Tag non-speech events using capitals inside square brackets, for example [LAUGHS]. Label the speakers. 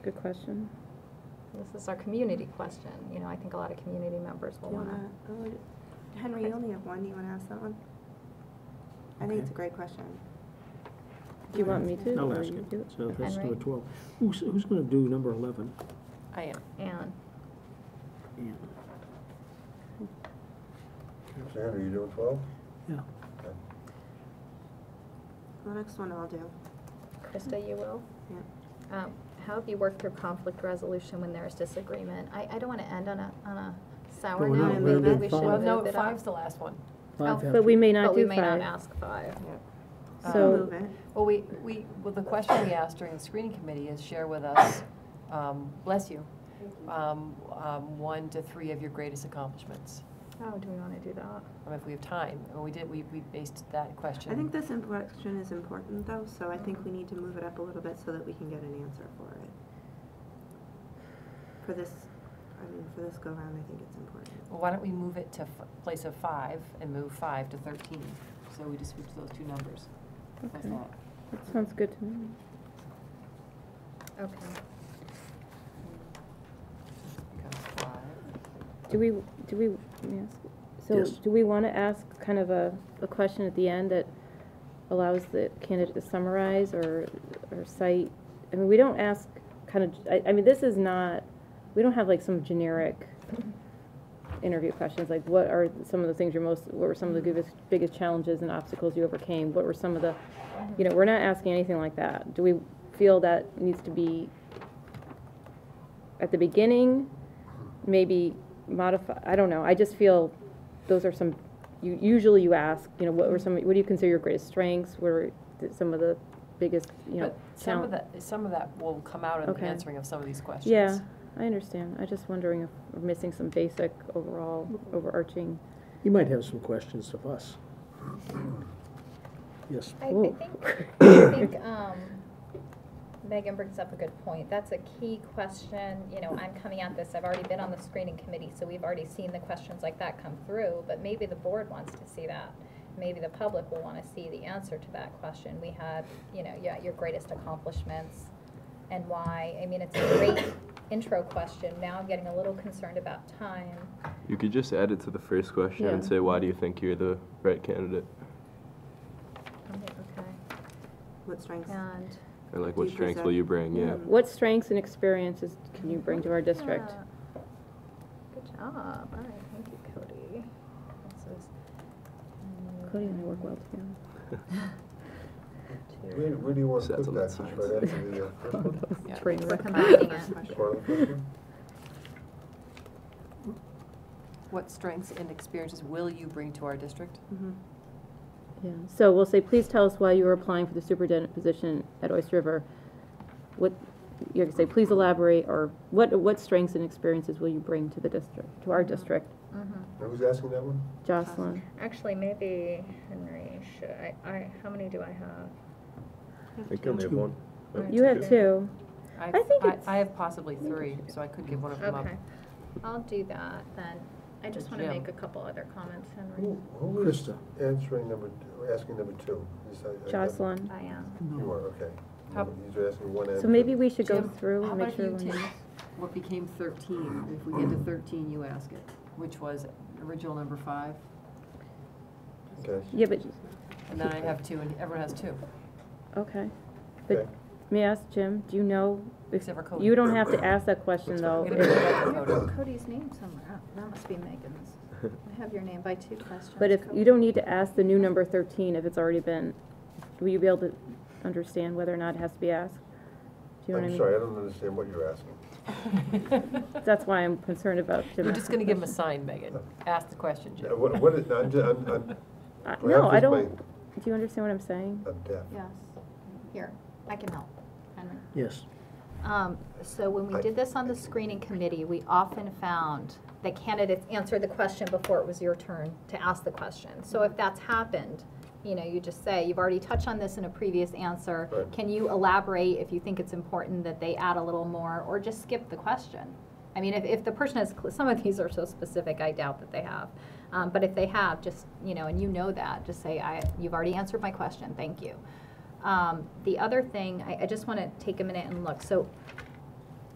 Speaker 1: Good question.
Speaker 2: This is our community question. You know, I think a lot of community members will
Speaker 3: Do you
Speaker 2: want
Speaker 3: wanna-
Speaker 2: to.
Speaker 3: oh, you- Henry, you only have one, do you want to ask that one? I think it's a great question.
Speaker 1: Do you want me to?
Speaker 4: I'll
Speaker 1: or
Speaker 4: ask
Speaker 1: you
Speaker 4: it.
Speaker 1: do
Speaker 4: So that's
Speaker 2: Henry?
Speaker 4: number 12. Who's, who's going to do number 11?
Speaker 5: I am.
Speaker 2: And
Speaker 4: Ann.
Speaker 6: Sam, are you doing twelve?
Speaker 4: Yeah.
Speaker 1: Oh,
Speaker 3: The next one I'll do.
Speaker 2: Krista, you will?
Speaker 3: Yeah.
Speaker 2: Um, How have you worked through conflict resolution when there is disagreement? I, I don't want to end on a, on a sour
Speaker 4: No,
Speaker 3: no,
Speaker 2: note.
Speaker 3: we're
Speaker 2: Maybe
Speaker 3: doing
Speaker 2: we should
Speaker 4: five.
Speaker 5: Well,
Speaker 2: move
Speaker 5: no,
Speaker 2: it up.
Speaker 5: five's the last one.
Speaker 4: Five
Speaker 2: Oh,
Speaker 4: have
Speaker 1: But
Speaker 4: to-
Speaker 1: we may not
Speaker 2: But we
Speaker 1: do
Speaker 2: may not
Speaker 1: five.
Speaker 2: ask five.
Speaker 3: I'll
Speaker 1: So-
Speaker 3: move it.
Speaker 5: Well, we, we, well, the question we asked during the screening committee is share with us, um, bless you, um, um, one to three of your greatest accomplishments.
Speaker 2: Oh, do we want to do that?
Speaker 5: I mean, if we have time, and we did, we, we based that question.
Speaker 3: I think this imp- question is important though, so I think we need to move it up a little bit so that we can get an answer for it. For this, I mean, for this go round, I think it's important.
Speaker 5: Well, why don't we move it to f- place of five and move five to thirteen? So we just switch those two numbers. How's
Speaker 1: Okay.
Speaker 5: that?
Speaker 1: That sounds good to me.
Speaker 2: Okay.
Speaker 5: Becomes five.
Speaker 1: Do we, do we, let me ask- so
Speaker 4: Yes.
Speaker 1: do we want to ask kind of a, a question at the end that allows the candidate to summarize or, or cite? I mean, we don't ask kind of, I, I mean, this is not, we don't have like some generic interview questions, like what are some of the things you're most, what were some of the biggest, biggest challenges and obstacles you overcame? What were some of the, you know, we're not asking anything like that. Do we feel that needs to be at the beginning, maybe modify, I don't know, I just feel those are some, you, usually you ask, you know, what were some, what do you consider your greatest strengths? What were th- some of the biggest, you know?
Speaker 5: But some of
Speaker 1: challenge-
Speaker 5: that, some of that will come out in the
Speaker 1: Okay.
Speaker 5: answering of some of these questions.
Speaker 1: Yeah, I understand. I just wondering if we're missing some basic overall overarching.
Speaker 4: You might have some questions of us. Yes.
Speaker 2: I, I
Speaker 1: Ooh.
Speaker 2: think, I think, um, Megan brings up a good point. That's a key question. You know, I'm coming at this, I've already been on the screening committee, so we've already seen the questions like that come through, but maybe the board wants to see that. Maybe the public will want to see the answer to that question. We had, you know, yeah, your greatest accomplishments and why. I mean, it's a great intro question. Now I'm getting a little concerned about time.
Speaker 7: You could just add it to the first question and
Speaker 1: Yeah.
Speaker 7: say, why do you think you're the right candidate?
Speaker 2: Okay,
Speaker 3: What strengths?
Speaker 2: and.
Speaker 7: Or like,
Speaker 3: Do
Speaker 7: what
Speaker 3: you
Speaker 7: strengths will
Speaker 3: present-
Speaker 7: you bring? Yeah.
Speaker 3: Mm.
Speaker 1: What strengths and experiences can you bring to our district?
Speaker 2: Yeah. Good job. All right, thank you, Cody. This is, mm,
Speaker 1: Cody and I
Speaker 6: [LAUGHS]
Speaker 1: work well together.
Speaker 2: two.
Speaker 6: Where, where do you want to
Speaker 7: So that's
Speaker 6: put
Speaker 7: a lot
Speaker 6: that?
Speaker 7: of
Speaker 1: [LAUGHS]
Speaker 6: Just right
Speaker 7: science.
Speaker 6: after the, uh, first one?
Speaker 5: Yeah.
Speaker 1: Train
Speaker 2: We're
Speaker 1: wreck.
Speaker 2: combining
Speaker 3: First
Speaker 2: it.
Speaker 3: question.
Speaker 6: Part of the first one?
Speaker 5: What strengths and experiences will you bring to our district?
Speaker 1: Mm-hmm.
Speaker 3: Mhm.
Speaker 1: Yeah, so we'll say, please tell us why you are applying for the superintendent position at Oyster River. What, you can say, please elaborate, or what, what strengths and experiences will you bring to the district, to
Speaker 5: Mm-hmm.
Speaker 1: our district?
Speaker 2: Mhm.
Speaker 6: Now, Who's asking that one?
Speaker 1: Jocelyn,
Speaker 2: Actually, maybe Henry should, I, I, how many do I have?
Speaker 7: I think you only have one.
Speaker 1: you have two.
Speaker 5: I've-
Speaker 1: I think it's-
Speaker 5: I have possibly three, so I could give one of them up.
Speaker 2: Okay, I'll do that then. I just want to
Speaker 5: Jim.
Speaker 2: make a couple other comments, Henry.
Speaker 6: Who, who is
Speaker 4: Krista.
Speaker 6: answering number, asking number two? Is that- I-
Speaker 1: Jocelyn.
Speaker 2: I um, am.
Speaker 6: You are, okay.
Speaker 5: How-
Speaker 6: These are asking one answer.
Speaker 1: So maybe we should go
Speaker 5: Jim,
Speaker 1: through and make sure.
Speaker 5: How about
Speaker 1: we-
Speaker 5: you take what became thirteen, if we get to thirteen, you ask it, which was original number five,
Speaker 6: Okay.
Speaker 1: Yeah, but,
Speaker 5: and then I have two, and everyone has two,
Speaker 1: okay. But
Speaker 6: Okay.
Speaker 1: may I ask, Jim, do you know? if-
Speaker 5: Except for Cody.
Speaker 1: You don't have to ask that question,
Speaker 7: That's
Speaker 1: though.
Speaker 5: fine. We're gonna
Speaker 1: if-
Speaker 5: do that. Dakota.
Speaker 2: Cody's name somewhere. Oh, That must be
Speaker 6: [LAUGHS]
Speaker 2: Megan's. I have your name by two questions.
Speaker 1: But if,
Speaker 2: Cody.
Speaker 1: you don't need to ask the new number thirteen if it's already been, will you be able to understand whether or not it has to be asked? Do you know
Speaker 6: I'm
Speaker 1: what
Speaker 6: sorry, I don't understand what you're asking.
Speaker 1: I
Speaker 6: [LAUGHS]
Speaker 5: [LAUGHS]
Speaker 1: mean? That's why I'm concerned about Jim.
Speaker 5: We're just gonna give them a sign, Megan, ask the question,
Speaker 6: Now,
Speaker 5: Jim.
Speaker 6: What, what is, I'm, ju- I'm, I'm,
Speaker 1: Uh, No,
Speaker 6: perhaps
Speaker 1: I
Speaker 6: it's
Speaker 1: don't,
Speaker 6: my-
Speaker 1: do you understand what I'm saying?
Speaker 6: I'm deaf.
Speaker 2: Yes. Here, I can help. Henry.
Speaker 4: Yes.
Speaker 2: Um, So when we did this on the screening committee, we often found that candidates answered the question before it was your turn to ask the question. So if that's happened, you know, you just say, you've already touched on this in a previous answer.
Speaker 6: Right.
Speaker 2: Can you elaborate if you think it's important that they add a little more, or just skip the question? I mean, if, if the person has, cl- some of these are so specific, I doubt that they have. Um, But if they have, just, you know, and you know that, just say, I, you've already answered my question, thank you. Um, The other thing, I, I just want to take a minute and look. So